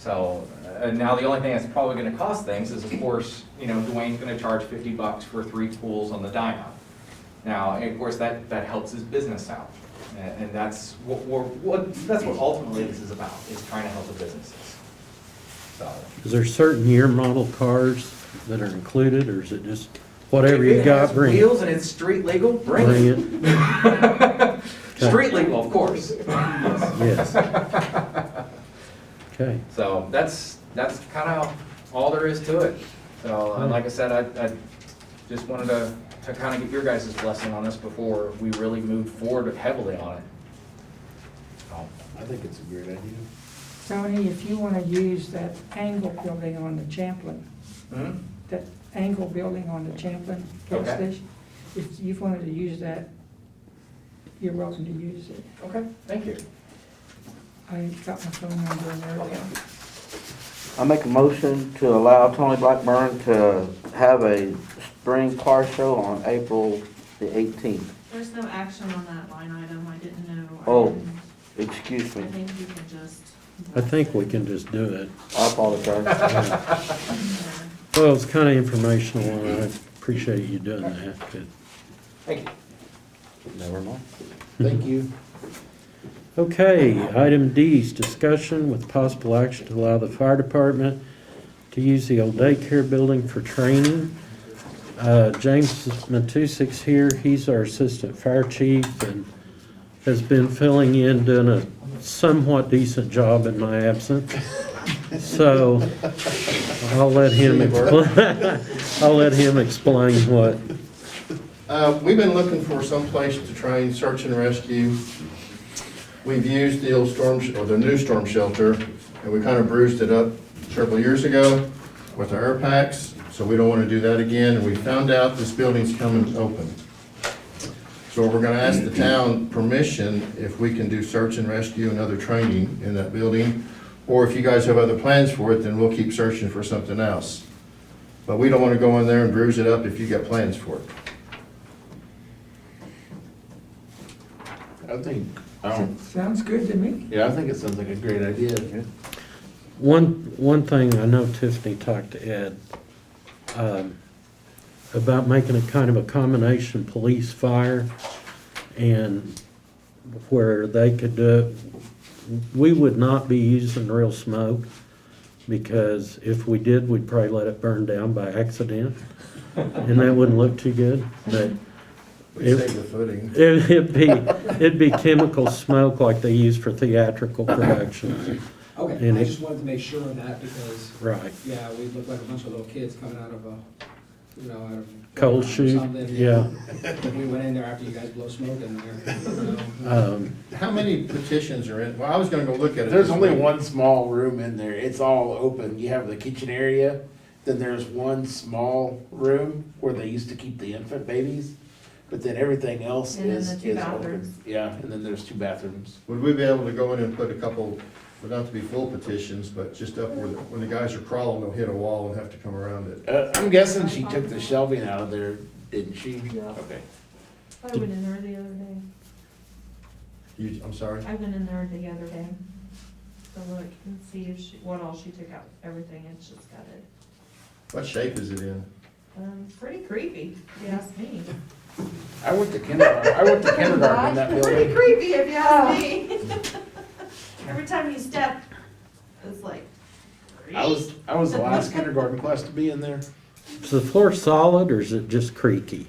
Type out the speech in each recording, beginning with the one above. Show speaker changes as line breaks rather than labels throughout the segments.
So, uh, and now the only thing that's probably gonna cost things is, of course, you know, Dwayne's gonna charge fifty bucks for three pools on the dyno. Now, and of course, that, that helps his business out, and, and that's what, we're what, that's what ultimately this is about, is trying to help the businesses. So,
Is there certain year model cars that are included, or is it just whatever you got, bring
If it has
it?
wheels and it's street legal, bring
Bring
it.
it,
Street legal, of course.
yes. Okay,
So that's, that's kind of all there is to it. So, and like I said, I, I just wanted to, to kind of get your guys' blessing on this before we really move forward heavily on it. So,
I think it's a great idea.
Tony, if you want to use that angle building on the Champlin,
mhm.
that angle building on the Champlin gas
Okay.
station, if you wanted to use that, you're welcome to use it.
Okay, thank you.
I got my phone number and everything.
I make a motion to allow Tony Blackburn to have a spring car show on April the eighteenth.
There's no action on that line item, I didn't know. I
Oh.
didn't-
Excuse
I
me,
think you can just.
I think we can just do it.
I apologize.
Yeah. Well, it's kind of informational, and I appreciate you doing that, but-
Thank you.
Never mind.
Thank you.
Okay, item D is discussion with possible action to allow the fire department to use the old daycare building for training. Uh, James Matusak's here, he's our assistant fire chief and has been filling in, doing a somewhat decent job in my absence. So I'll let him explain, I'll let him explain what,
Uh, We've been looking for some place to train search and rescue. We've used the old storm, sh- or the new storm shelter, and we kind of bruised it up several years ago with our air packs, so we don't want to do that again. And we found out this building's coming open. So we're going to ask the town permission if we can do search and rescue and other training in that building. Or if you guys have other plans for it, then we'll keep searching for something else. But we don't want to go in there and bruise it up if you got plans for it.
I think, um,
Sounds good to me.
yeah, I think it sounds like a great idea.
One, one thing, I know Tiffany talked to Ed, um, about making a kind of a combination police fire and where they could do, it. we would not be using real smoke because if we did, we'd probably let it burn down by accident and that wouldn't look too good, but
We saved the footing.
it- it'd be, it'd be chemical smoke like they use for theatrical productions,
Okay,
And
I
it-
just wanted to make sure of that because,
right?
yeah, we look like a bunch of little kids coming out of a, you know, out of.
Cold
or
shoot,
something.
yeah.
We went in there after you guys blow smoke in there, you know.
Um,
How many petitions are in, well, I was gonna go look at it.
There's
this
only
week.
one small room in there. It's all open. You have the kitchen area, then there's one small room where they used to keep the infant babies. But then everything else
And then the
is,
two
is open.
bathrooms.
Yeah, and then there's two bathrooms.
Would we be able to go in and put a couple, would not to be full petitions, but just up where, the- when the guys are crawling, they'll hit a wall and have to come around it.
Uh, I'm guessing she took the shelving out of there, didn't she?
Yeah.
Okay.
I went in there the other day,
You, I'm sorry?
I went in there the other day to look and see if she, what all she took out, everything, and she's got it.
What shape is it in?
Um, pretty creepy, if you ask me.
I went to kindergarten. I went to kindergarten in that
Pretty
building.
creepy, if you ask me. Every time you step, it's like.
I was I was the last kindergarten class to be in there.
Is the floor solid or is it just creaky?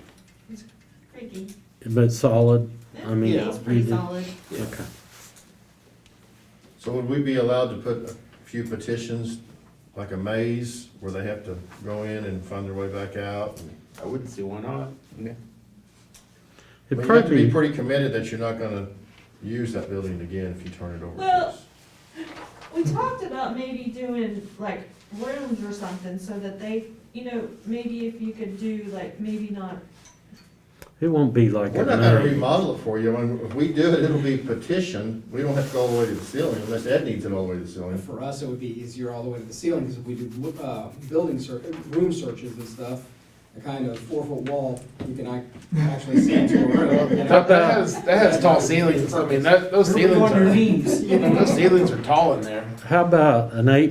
Creaky.
But solid, I mean.
Yeah.
It's pretty
you-
solid.
Okay.
So would we be allowed to put a few petitions, like a maze, where they have to go in and find their way back out?
I wouldn't see why not.
But
It'd
you have to be
probably,
pretty committed that you're not gonna use that building again if you turn it over to
Well-
us.
We talked about maybe doing like rooms or something so that they, you know, maybe if you could do like, maybe not,
it won't be like
We're
a
not gonna
night.
remodel it for you, and if we do it, it'll be petition, we don't have to go all the way to the ceiling, unless Ed needs it all the way to the
And
ceiling.
For us, it would be easier all the way to the ceiling because if we do, uh, building search, room searches and stuff, a kind of four-foot wall, you can ac- actually see into a room. you know?
That, that has that has tall ceilings. I mean that those ceilings are those ceilings are tall in there.
How about an eight